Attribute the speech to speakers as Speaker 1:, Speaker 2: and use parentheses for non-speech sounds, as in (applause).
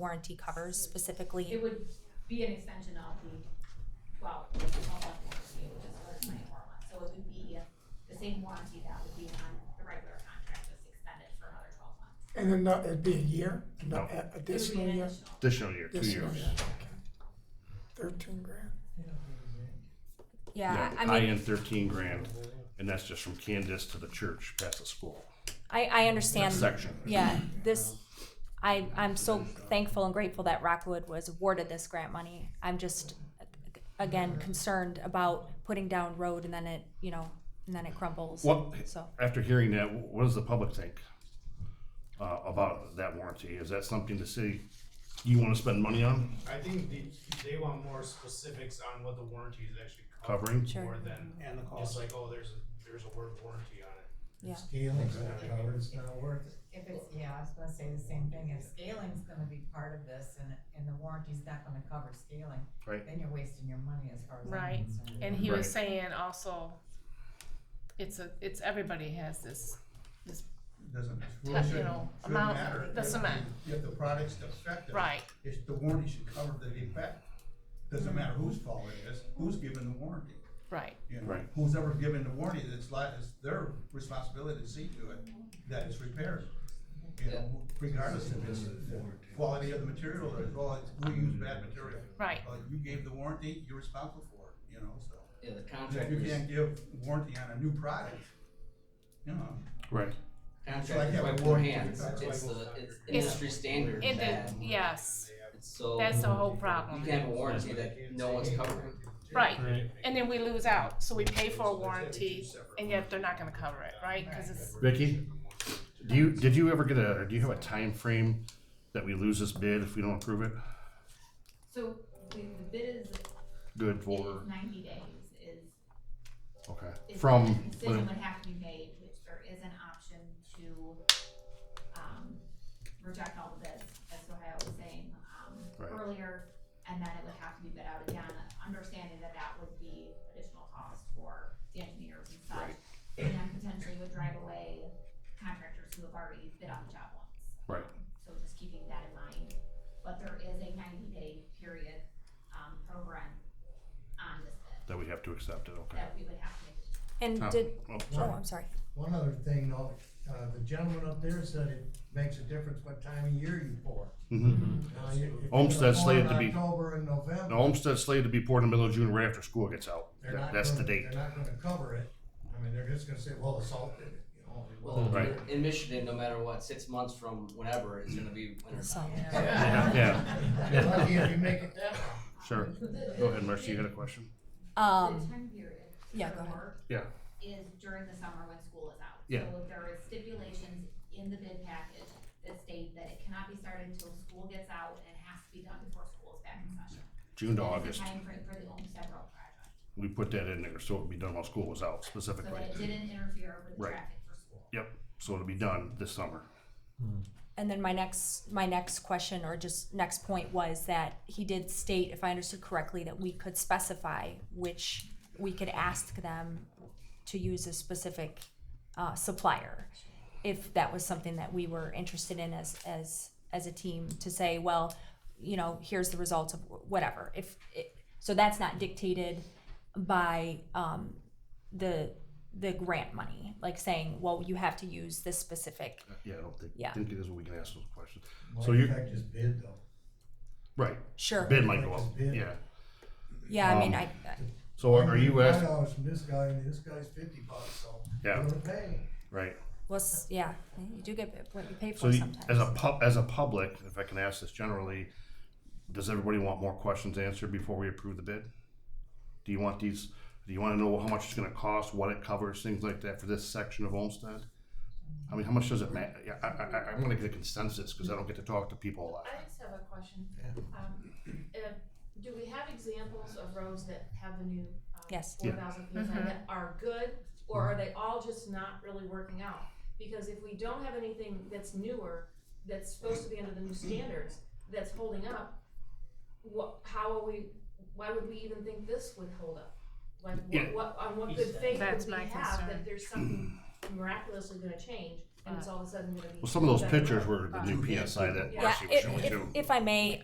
Speaker 1: warranty covers
Speaker 2: It
Speaker 1: specifically?
Speaker 2: would be an extension of the, well, it's not like warranty, it would just go to twenty-four months, so it would be the same warranty that would be on the regular contract, just extended for another twelve months.
Speaker 3: And then not, it'd be a year, no,
Speaker 4: No.
Speaker 3: a-
Speaker 2: It would be
Speaker 3: additional
Speaker 2: an
Speaker 3: year,
Speaker 2: additional.
Speaker 4: Additional year, two
Speaker 3: Additional
Speaker 4: years.
Speaker 3: year. thirteen grand.
Speaker 1: Yeah, I
Speaker 4: I
Speaker 1: mean,
Speaker 4: end thirteen grand, and that's just from Candace to the church past the school.
Speaker 1: I, I understand.
Speaker 4: Section.
Speaker 1: Yeah, this, I, I'm so thankful and grateful that Rockwood was awarded this grant money. I'm just, again, concerned about putting down road and then it, you know, and then it crumbles,
Speaker 4: What,
Speaker 1: so.
Speaker 4: after hearing that, what does the public think uh, about that warranty? Is that something the city, you want to spend money on
Speaker 5: I think they, they want more specifics on what the warranty is actually covering
Speaker 4: covering?
Speaker 1: Sure.
Speaker 5: more than
Speaker 6: And the cost.
Speaker 5: just like, oh, there's a, there's a word warranty on it.
Speaker 1: Yeah.
Speaker 7: Scaling's not covered, it's not worth it.
Speaker 8: If it's, yeah, I was gonna say the same thing, if scaling's gonna be part of this and, and the warranty's not gonna cover scaling,
Speaker 4: Right.
Speaker 8: then you're wasting your money as far as
Speaker 9: Right.
Speaker 8: I'm concerned.
Speaker 9: And he
Speaker 4: Right.
Speaker 9: was saying also, it's a, it's, everybody has this,
Speaker 7: Doesn't,
Speaker 9: you
Speaker 7: really shouldn't,
Speaker 9: know,
Speaker 7: shouldn't
Speaker 9: amount-
Speaker 7: matter.
Speaker 9: the
Speaker 7: If-
Speaker 9: cement.
Speaker 7: If the product's defective.
Speaker 9: right,
Speaker 7: It's, the warranty should cover the defect.
Speaker 9: Mm-hmm.
Speaker 7: Doesn't matter whose fault it is, who's given the warranty,
Speaker 9: right.
Speaker 7: you know?
Speaker 4: Right.
Speaker 7: Who's ever given the warranty, it's like, it's their responsibility to see to it that it's repaired. You know, regardless of it's the quality of the material or the quality, who used bad material.
Speaker 9: Right.
Speaker 7: Uh, you gave the warranty, you're responsible for it, you know, so.
Speaker 10: Yeah, the
Speaker 7: If you
Speaker 10: contractors,
Speaker 7: can't give warranty on a new product, you know,
Speaker 4: Right.
Speaker 10: contractors wipe their hands, it's the, it's industry standard
Speaker 9: And
Speaker 10: that,
Speaker 9: the, yes,
Speaker 10: it's so,
Speaker 11: Oh.
Speaker 9: that's
Speaker 10: you
Speaker 9: the whole
Speaker 10: can
Speaker 9: problem.
Speaker 10: have a warranty that no one's covering.
Speaker 9: Right, and then we lose out, so we pay for a warranty and yet they're not gonna cover it, right? Cause it's,
Speaker 4: Vicky, do you, did you ever get a, or do you have a time frame that we lose this bid if we don't approve it?
Speaker 2: So the, the bid is,
Speaker 4: Good
Speaker 2: it
Speaker 4: for,
Speaker 2: is ninety days is
Speaker 4: okay,
Speaker 2: is
Speaker 4: from,
Speaker 2: that Decision would have to be made, which there is an option to, um, reject all the bids, that's what I was saying, um,
Speaker 4: Right.
Speaker 2: earlier. And then it would have to be bid out again, understanding that that would be additional cost for the engineers and such. And then potentially would drive away contractors who have already bid on the job once.
Speaker 4: Right.
Speaker 2: Um, So just keeping that in mind, but there is a ninety day period, um, for rent on this bid,
Speaker 4: that we have to accept it, okay.
Speaker 2: that we would have to make a
Speaker 1: And
Speaker 4: Oh,
Speaker 1: did,
Speaker 4: oh,
Speaker 1: oh,
Speaker 4: sorry.
Speaker 1: I'm sorry.
Speaker 7: One other thing, though, uh, the gentleman up there said it makes a difference what time of year you pour.
Speaker 4: Mhm.
Speaker 7: Now, you- if you
Speaker 4: Homestead
Speaker 7: pour
Speaker 4: slated
Speaker 7: in
Speaker 4: to be-
Speaker 7: October and
Speaker 4: The
Speaker 7: November,
Speaker 4: homestead slated to be poured in the middle of June right after school gets out.
Speaker 7: they're not
Speaker 4: That's the
Speaker 7: gonna-
Speaker 4: date.
Speaker 7: They're not gonna cover it, I mean, they're just gonna say, well, the salt did it, you know. they-
Speaker 10: Well,
Speaker 4: Right.
Speaker 10: in- in Michigan, no matter what, six months from whenever is gonna be winter.
Speaker 1: So,
Speaker 4: Yeah, yeah,
Speaker 7: You're Lucky if you make
Speaker 4: (laughs)
Speaker 7: it that long.
Speaker 4: sure. Go ahead, Marcy, you got a question?
Speaker 2: The
Speaker 1: um,
Speaker 2: time period
Speaker 1: yeah,
Speaker 2: for
Speaker 1: go ahead.
Speaker 2: work
Speaker 4: Yeah.
Speaker 2: Is during the summer when school is out.
Speaker 4: Yeah.
Speaker 2: So there is stipulations in the bid package that state that it cannot be started until school gets out and it has to be done before school is back in session.
Speaker 4: June to
Speaker 2: That is
Speaker 4: August,
Speaker 2: the timeframe for the Olmsted Road project,
Speaker 4: we put that in there, so it'd be done while school was out
Speaker 2: so
Speaker 4: specifically.
Speaker 2: that it didn't interfere with the
Speaker 4: Right.
Speaker 2: traffic for school.
Speaker 4: So it'll be done this summer.
Speaker 1: And then my next, my next question or just next point was that he did state, if I understood correctly, that we could specify which we could ask them to use a specific uh, supplier. If that was something that we were interested in as, as, as a team to say, well, you know, here's the results of whatever. If, it, so that's not dictated by um, the, the grant money, like saying, well, you have to use this specific
Speaker 4: Yeah, I don't think,
Speaker 1: Yeah.
Speaker 4: think it is what we can ask those questions.
Speaker 7: Well,
Speaker 4: So
Speaker 7: in
Speaker 4: you-
Speaker 7: fact, just bid though.
Speaker 4: Right,
Speaker 1: Sure.
Speaker 4: bid might go
Speaker 7: Like
Speaker 4: up,
Speaker 7: this bid.
Speaker 4: yeah.
Speaker 1: Yeah, I mean,
Speaker 4: Um,
Speaker 1: I, I
Speaker 4: So are you
Speaker 7: Five
Speaker 4: asking,
Speaker 7: dollars from this guy, and this guy's fifty bucks, so.
Speaker 4: Yeah.
Speaker 7: I'm gonna pay.
Speaker 4: right,
Speaker 1: was, yeah, you do get what you pay for
Speaker 4: so you-
Speaker 1: sometimes.
Speaker 4: as a pub, as a public, if I can ask this generally, does everybody want more questions answered before we approve the bid? Do you want these, do you wanna know how much it's gonna cost, what it covers, things like that for this section of Olmsted? I mean, how much does it matter? Yeah, I, I, I- I'm gonna get a consensus, cause I don't get to talk to people a lot.
Speaker 11: I just have a question. Um, if, do we have examples of roads that have the new, um,
Speaker 1: Yes.
Speaker 11: four thousand PSI that
Speaker 9: Mm-hmm.
Speaker 11: are good, or are they all just not really working out? Because if we don't have anything that's newer, that's supposed to be under the new standards, that's holding up, what, how are we, why would we even think this would hold up? Like,
Speaker 4: Yeah.
Speaker 11: what, what, on what good faith
Speaker 9: That's
Speaker 11: would we
Speaker 9: my
Speaker 11: have
Speaker 9: concern.
Speaker 11: that there's something miraculously gonna change and it's all of a sudden gonna be.
Speaker 4: Well, some of those
Speaker 11: better.
Speaker 4: pictures were the new PSI that
Speaker 11: Yeah.
Speaker 1: Yeah,
Speaker 4: Marcy was
Speaker 1: if,
Speaker 4: showing
Speaker 1: if,
Speaker 4: too.
Speaker 1: if I may,